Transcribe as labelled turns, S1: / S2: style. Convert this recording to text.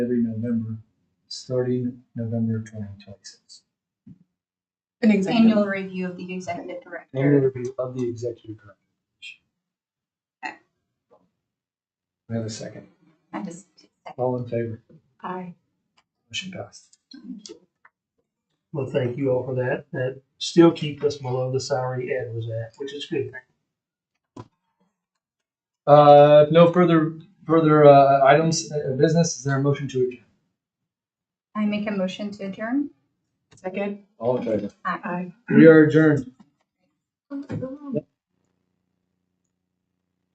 S1: starting November twenty twenty-six.
S2: An executive.
S3: Annual review of the executive
S1: Annual
S3: director.
S1: review of the executive director.
S3: Okay.
S1: We have a second.
S3: I just,
S1: All in favor?
S2: Aye.
S1: Motion passed.
S4: Well, thank you all for that. That still keep us below the salary Ed was at, which is good.
S1: Uh, no further, further, uh, items, uh, business, is there a motion to adjourn?
S3: I make a motion to adjourn.
S2: Second.
S1: All in favor?
S2: Aye.
S1: We are adjourned.